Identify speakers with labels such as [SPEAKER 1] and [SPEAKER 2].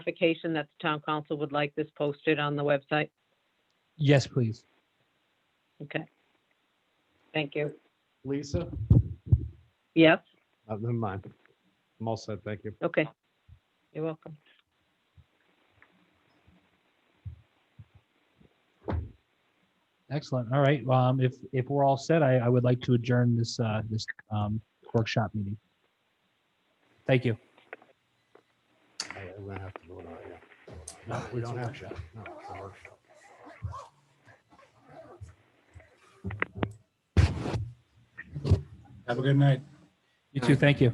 [SPEAKER 1] clarification that the town council would like this posted on the website?
[SPEAKER 2] Yes, please.
[SPEAKER 1] Okay. Thank you.
[SPEAKER 3] Lisa?
[SPEAKER 1] Yes,
[SPEAKER 3] Uh, Never mind. I'm all set, thank you.
[SPEAKER 1] okay. You're welcome.
[SPEAKER 2] Excellent. All right. Um, if, if we're all set, I, I would like to adjourn this, uh, this, um, workshop meeting. Thank you.
[SPEAKER 3] I- I'm gonna have to vote on it, yeah. No, we don't have to. No, it's a workshop.
[SPEAKER 4] Have a good night.
[SPEAKER 2] You too. Thank you.